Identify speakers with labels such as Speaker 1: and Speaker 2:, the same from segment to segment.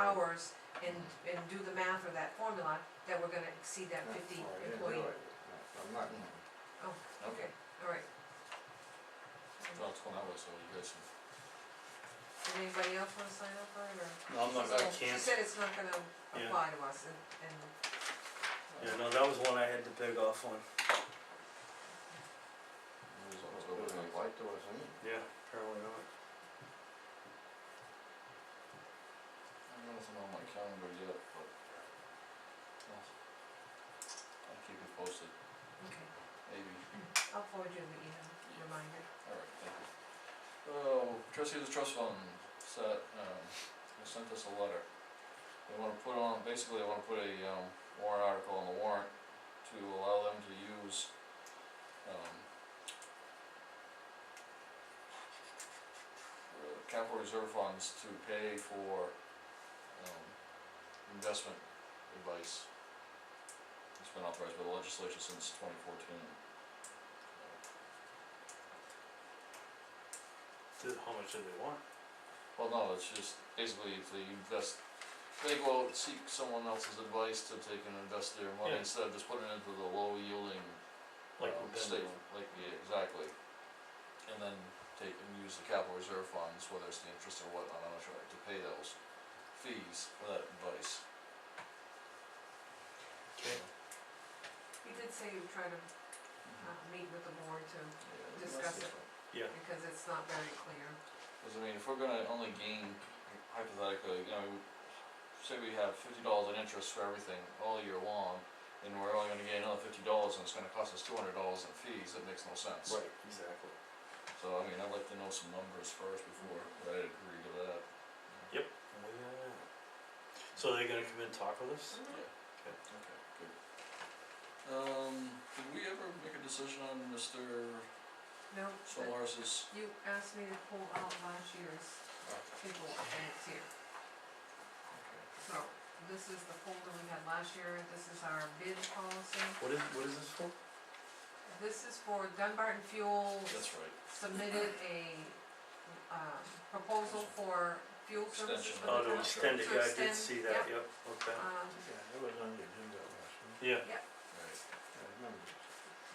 Speaker 1: hours and, and do the math or that formula, that we're gonna exceed that fifty
Speaker 2: Oh, I didn't
Speaker 1: employee.
Speaker 2: realize it. No, I'm not,
Speaker 1: Oh, okay, alright.
Speaker 3: Well, it's one hour, so you guys should.
Speaker 1: Did anybody else wanna sign up for it, or?
Speaker 4: No, I'm not gonna
Speaker 1: She
Speaker 4: cancel,
Speaker 1: said it's not gonna
Speaker 4: Yeah.
Speaker 1: apply to us, and, and,
Speaker 4: yeah, no, that was one I had to beg off on,
Speaker 3: It was
Speaker 2: it
Speaker 3: October
Speaker 2: would have
Speaker 3: ninth.
Speaker 2: applied to us, anyway.
Speaker 4: yeah, apparently not.
Speaker 3: I don't know if I'm on my calendar yet, but. well, I'll keep you posted,
Speaker 1: okay,
Speaker 3: maybe,
Speaker 1: I'll forward you the email reminder.
Speaker 3: alright, thank you. Oh, trustee of the trust fund said, um, they sent us a letter. They wanna put on, basically, they wanna put a, um, warrant article on the warrant to allow them to use, um, uh, capital reserve funds to pay for, um, investment advice. It's been authorized by the legislature since twenty fourteen.
Speaker 4: Dude, how much did they want?
Speaker 3: Well, no, it's just basically if they invest, they go out and seek someone else's advice to take and invest their money
Speaker 4: Yeah.
Speaker 3: instead of just putting it into the low yielding
Speaker 4: Like
Speaker 3: um,
Speaker 4: we've been
Speaker 3: state,
Speaker 4: doing.
Speaker 3: like, yeah, exactly. And then take and use the capital reserve funds, whether it's the interest or whatnot, I'm not sure, to pay those fees for that advice.
Speaker 4: Okay.
Speaker 1: You did say you try to, uh, meet with the board too,
Speaker 3: Yeah, that's
Speaker 1: Discuss it.
Speaker 3: different.
Speaker 1: because it's not very clear.
Speaker 3: Cause I mean, if we're gonna only gain hypothetically, you know, say we have fifty dollars in interest for everything all year long, and we're only gonna gain another fifty dollars and it's gonna cost us two hundred dollars in fees, that makes no sense.
Speaker 4: Right, exactly.
Speaker 3: So I mean, I'd like to know some numbers first before I agree to that.
Speaker 4: Way out of that. So they're gonna come and talk with us?
Speaker 3: Okay. Okay, good. Um, did we ever make a decision on Mr.
Speaker 1: No, but
Speaker 3: Solaris's?
Speaker 1: you asked me to pull out last year's people, and it's here. So, this is the folder we had last year, this is our bid policy,
Speaker 4: What is, what is this for?
Speaker 1: this is for Dunbarton Fuel
Speaker 3: That's right,
Speaker 1: submitted a, um, proposal for fuel services
Speaker 3: Extension.
Speaker 1: for the
Speaker 4: Oh,
Speaker 1: town.
Speaker 4: to extend it,
Speaker 1: To
Speaker 4: yeah, I did
Speaker 1: extend,
Speaker 4: see that, yep, okay.
Speaker 1: Um,
Speaker 2: Yeah, it was on the agenda last week,
Speaker 4: Yeah,
Speaker 3: right.
Speaker 2: I remember.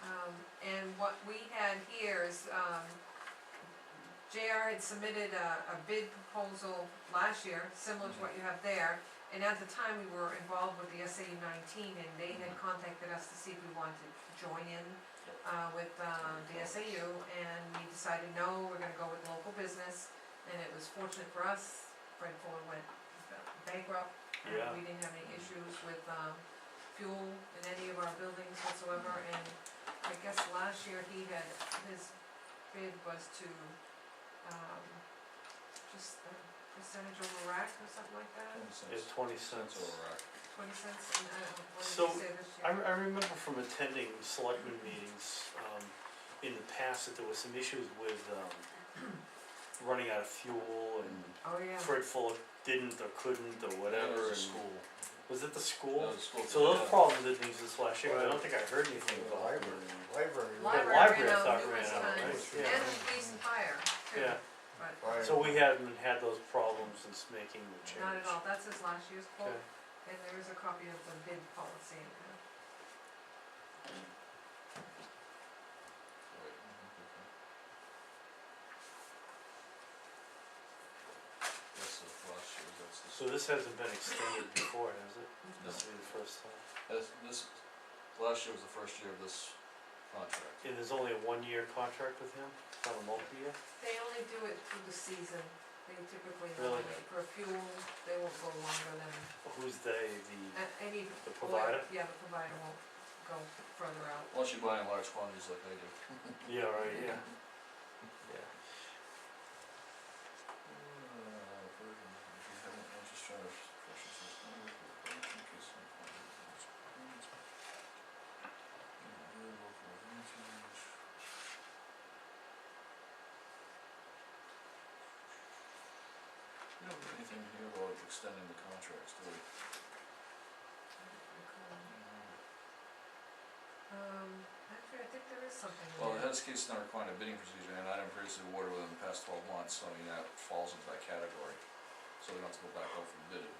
Speaker 1: Um, and what we had here is, um, JR had submitted a, a bid proposal last year, similar to what you have there. And at the time, we were involved with the SAU nineteen, and they had
Speaker 3: Mhm.
Speaker 1: contacted us to see if we wanted to join in, uh, with, um, the SAU, and we decided, no, we're gonna go with local business. And it was fortunate for us, Fred Fuller went bankrupt, and
Speaker 4: Yeah.
Speaker 1: we didn't have any issues with, um, fuel in any of our buildings whatsoever, and I guess last year he had, his bid was to, um, just a percentage over rack or something like that,
Speaker 3: Twenty
Speaker 4: it's
Speaker 3: cents.
Speaker 4: twenty cents.
Speaker 3: That's all right.
Speaker 1: twenty cents, and I don't know, what did
Speaker 4: So,
Speaker 1: he say this
Speaker 4: I,
Speaker 1: year?
Speaker 4: I remember from attending selectmen meetings, um, in the past that there was some issues with, um, running out of fuel and
Speaker 1: Oh, yeah.
Speaker 4: Fred Fuller didn't or couldn't or
Speaker 3: That
Speaker 4: whatever
Speaker 3: was a
Speaker 4: and.
Speaker 3: school.
Speaker 4: Was it the
Speaker 3: That
Speaker 4: school?
Speaker 3: was a school.
Speaker 4: So those
Speaker 3: Yeah.
Speaker 4: problems didn't exist last year, 'cause I
Speaker 2: Well,
Speaker 4: don't think I heard anything
Speaker 2: The
Speaker 4: about it.
Speaker 2: library, library. was-
Speaker 1: Library
Speaker 4: library
Speaker 1: ran
Speaker 4: I
Speaker 1: out
Speaker 4: thought
Speaker 1: numerous
Speaker 4: ran out,
Speaker 1: times,
Speaker 2: right?
Speaker 1: and
Speaker 2: Yeah.
Speaker 1: the police and fire, too,
Speaker 4: Yeah.
Speaker 1: but
Speaker 2: Fire.
Speaker 4: So we haven't had those problems since making the change.
Speaker 1: not at all, that's his last year's quote,
Speaker 4: Okay.
Speaker 1: and there is a copy of the bid policy in there.
Speaker 3: Right, mhm, okay. That's the last year, that's the,
Speaker 4: So this hasn't been extended before, has it?
Speaker 3: No.
Speaker 4: This will be the first time.
Speaker 3: that's, this, last year was the first year of this contract.
Speaker 4: And there's only a one-year contract with him, it's not a multi-year?
Speaker 1: They only do it through the season, they typically,
Speaker 4: Really?
Speaker 1: for fuel, they won't go longer than,
Speaker 4: Who's they, the,
Speaker 1: a- any.
Speaker 4: the
Speaker 1: oil-
Speaker 4: provider?
Speaker 1: Yeah, the provider won't go further out.
Speaker 3: Unless you buy in large quantities like I do.
Speaker 4: Yeah, right, yeah. Yeah.
Speaker 3: We don't have anything here about extending the contracts, do we?
Speaker 1: Um, actually, I think there is something there.
Speaker 3: Well, the heads case is not requiring a bidding procedure, and item previously awarded within the past twelve months, so I mean, that falls into that category. So we don't have to go back out for bid.